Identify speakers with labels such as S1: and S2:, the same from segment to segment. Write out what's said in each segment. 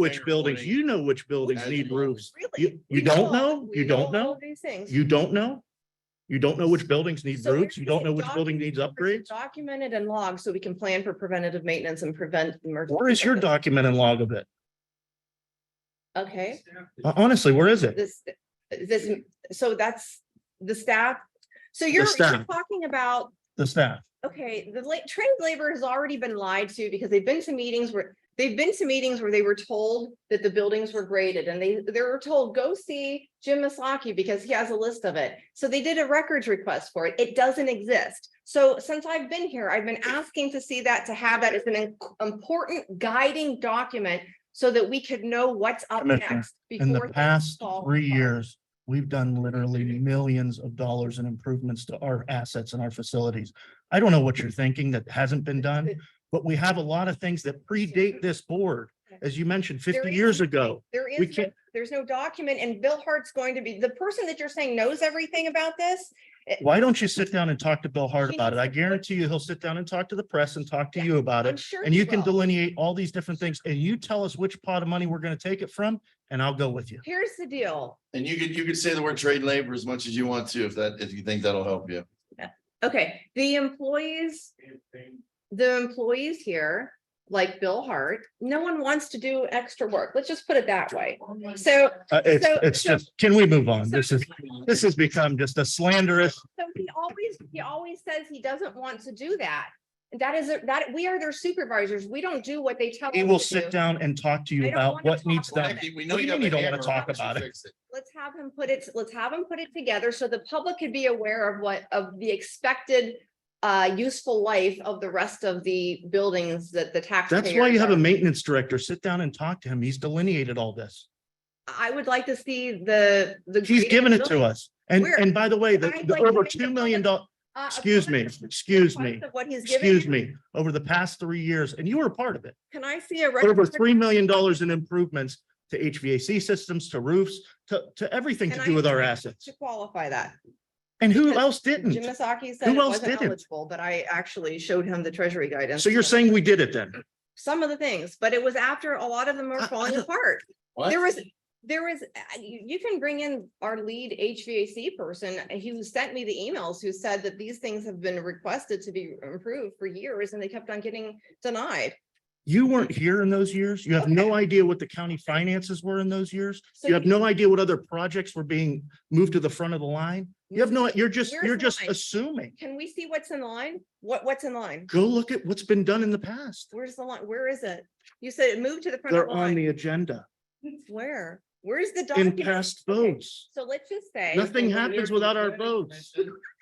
S1: which
S2: Hangar
S1: buildings,
S2: 20.
S1: you know which buildings need roofs.
S3: Really?
S1: You, you don't know, you don't know,
S3: These things.
S1: you don't know. You don't know which buildings need
S3: So
S1: roofs,
S3: we're
S1: you don't know
S3: saying
S1: which building needs upgrades.
S3: Documented and logged so we can plan for preventative maintenance and prevent emergency.
S1: Where is your
S3: service.
S1: document and log of it?
S3: Okay,
S1: Hon- Honestly, where is it?
S3: this, this, so that's the staff. So you're, you're
S1: staff.
S3: talking about,
S1: The staff.
S3: okay, the late trained labor has already been lied to because they've been to meetings where, they've been to meetings where they were told that the buildings were graded and they, they were told, go see Jim Maslaki because he has a list of it. So they did a records request for it. It doesn't exist. So since I've been here, I've been asking to see that, to have that as an im- important guiding document so that we could know what's up
S1: Commissioner,
S3: next.
S1: In the
S3: before things
S1: past
S3: fall
S1: three
S3: apart.
S1: years, we've done literally millions of dollars in improvements to our assets and our facilities. I don't know what you're thinking that hasn't been done, but we have a lot of things that predate this board. As you mentioned,
S3: There
S1: fifty
S3: is
S1: years
S3: nothing.
S1: ago,
S3: There
S1: we
S3: is, no-
S1: can't-
S3: there's no document and Bill Hart's going to be, the person that you're saying knows everything about this.
S1: why don't you sit down and talk to Bill Hart
S3: He
S1: about it?
S3: needs
S1: I
S3: to-
S1: guarantee you, he'll sit down and talk to the press and talk to
S3: Yeah,
S1: you about
S3: I'm
S1: it.
S3: sure.
S1: And
S3: he
S1: you can
S3: will.
S1: delineate all these different things and you tell us which pot of money we're gonna take it from and I'll go with you.
S3: Here's the deal.
S2: And you could, you could say the word trade labor as much as you want to, if that, if you think that'll help you.
S3: Okay, the employees, the employees here, like Bill Hart, no one wants to do extra work. Let's just put it that way. So,
S1: Uh, it's,
S3: So-
S1: it's
S3: so-
S1: just, can we move on?
S3: so-
S1: This is, this has become just a slanderous.
S3: so he always, he always says he doesn't want to do that. That is, that, we are their supervisors. We don't do what they tell.
S1: He
S3: us
S1: will
S3: to do.
S1: sit down and talk to you
S3: I don't
S1: about
S3: wanna
S1: what
S3: talk
S1: needs
S3: about
S1: done.
S3: it.
S2: We
S1: What do you
S2: have
S1: mean you
S2: a
S1: don't wanna
S2: hammer,
S1: talk
S2: why don't you
S1: about it?
S2: fix
S3: let's have him put it, let's have him put it together so the public could be aware of what, of the expected uh, useful life of the rest of the buildings that the taxpayers.
S1: That's why you have a
S3: are-
S1: maintenance director. Sit down and talk to him. He's delineated all this.
S3: I would like to see the, the.
S1: He's given it to us. And,
S3: Where-
S1: and by the way, the,
S3: I'd
S1: the
S3: like to
S1: over
S3: make a
S1: two million dollars.
S3: Uh, a
S1: excuse me,
S3: public
S1: excuse me,
S3: request of What he's given.
S1: excuse
S3: you.
S1: me, over the past three years, and you were a part of it,
S3: Can I see a?
S1: over
S3: record?
S1: three million dollars in improvements to HVAC systems, to roofs, to, to everything to
S3: Can
S1: do
S3: I-
S1: with our assets.
S3: To qualify that.
S1: And who
S3: Because
S1: else
S3: Jim
S1: didn't?
S3: Misaki said
S1: Who
S3: it
S1: else
S3: wasn't
S1: didn't?
S3: eligible, but I actually showed him the treasury guidance.
S1: So you're saying we did it then?
S3: Some of the things, but it was after a lot of them
S1: I-
S3: were
S1: I
S3: falling
S1: don't-
S3: apart.
S2: What?
S3: There was, there was, uh, you, you can bring in our lead HVAC person, uh, who sent me the emails, who said that these things have been requested to be improved for years and they kept on getting denied.
S1: You weren't here in those years. You have no idea what the county finances were in those years.
S3: So
S1: You have no idea what other projects were being moved to the front of the line. You have no, you're just,
S3: Where's
S1: you're
S3: the
S1: just
S3: line?
S1: assuming.
S3: Can we see what's in line? What, what's in line?
S1: Go look at what's been done in the past.
S3: Where's the line? Where is it? You said it moved to the front of
S1: They're
S3: the
S1: on
S3: line.
S1: the agenda
S3: Where? Where's the
S1: in
S3: document?
S1: past
S3: Okay.
S1: votes.
S3: So let's just say.
S1: Nothing happens without our votes.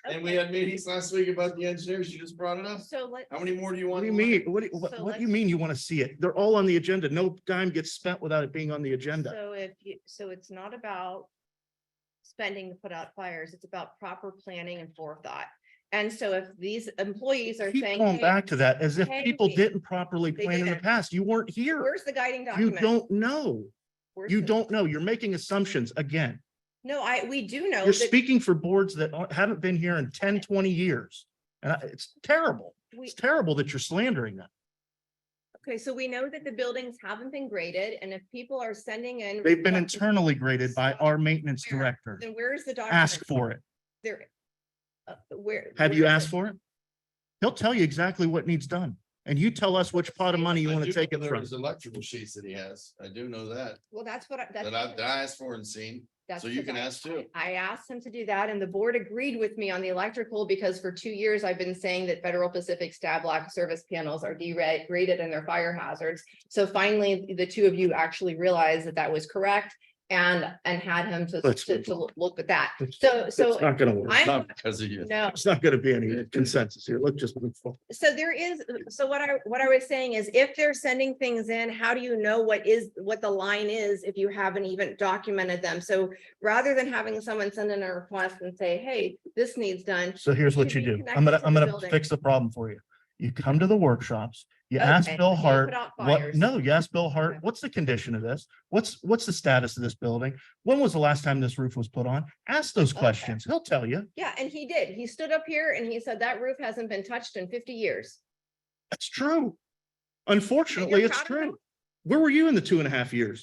S2: And we had meetings last week about the engineers, you just brought it up.
S3: So let.
S2: How many more do you
S1: What
S2: want?
S1: do you mean? What, do you- what,
S3: So
S1: what do you
S3: let's-
S1: mean you want to see it? They're all on the agenda. No dime gets spent without it being on the agenda.
S3: So if you, so it's not about spending to put out fires, it's about proper planning and forethought. And so if these employees are
S1: Keep
S3: saying,
S1: going
S3: "Hey,
S1: back to that as if
S3: hey,
S1: people
S3: hey,
S1: didn't properly
S3: they
S1: plan in the
S3: didn't.
S1: past. You weren't here.
S3: where's the guiding
S1: You
S3: document?
S1: don't know.
S3: Where's
S1: You
S3: the-"
S1: don't know. You're making assumptions again.
S3: No, I, we do know
S1: You're
S3: that
S1: speaking for boards that aren't- haven't been here in 10, 20 years. And I- it's terrible.
S3: we,
S1: It's terrible that you're slandering them.
S3: okay, so we know that the buildings haven't been graded and if people are sending in.
S1: They've been
S3: requests,
S1: internally graded by our maintenance
S3: Where?
S1: director.
S3: Then where's the document?
S1: Ask for it.
S3: There. uh, Where?
S1: Have you asked for it? He'll tell you exactly what needs done. And you tell us which pot of money you
S2: I
S1: want
S2: do
S1: to take
S2: know
S1: it
S2: there
S1: from.
S2: is Electrical sheets that he has. I do know that,
S3: Well, that's what, I- that's.
S2: that I've, that I asked for and seen.
S3: that's
S2: So you
S3: what
S2: can
S3: I-
S2: ask too.
S3: I asked him to do that and the board agreed with me on the electrical because for two years I've been saying that Federal Pacific stab lock service panels are degraded and they're fire hazards. So finally, the two of you actually realized that that was correct and, and had him to,
S1: Let's
S3: to,
S1: move
S3: to
S1: on.
S3: look at that.
S1: It's-
S3: So,
S1: It's
S3: so
S1: not gonna work.
S3: I'm-
S2: Not because of you.
S3: no,
S1: It's not gonna be any consensus here. Let's just move forward.
S3: so there is, so what I, what I was saying is if they're sending things in, how do you know what is, what the line is if you haven't even documented them? So rather than having someone send in a request and say, hey, this needs done,
S1: So here's what you
S3: Should be
S1: do. I'm gonna,
S3: connected to
S1: I'm
S3: the
S1: gonna
S3: building.
S1: fix the problem for you. You come to the workshops, you ask
S3: Okay,
S1: Bill
S3: okay,
S1: Hart,
S3: put out
S1: what,
S3: fires.
S1: no, you ask Bill Hart,
S3: Okay.
S1: what's the condition of this? What's, what's the status of this building? When was the last time this roof was put on? Ask those
S3: Okay.
S1: questions. He'll tell you.
S3: Yeah, and he did. He stood up here and he said that roof hasn't been touched in fifty years.
S1: That's true. Unfortunately, it's
S3: proud of him?
S1: true. Where were you in the two and a half years?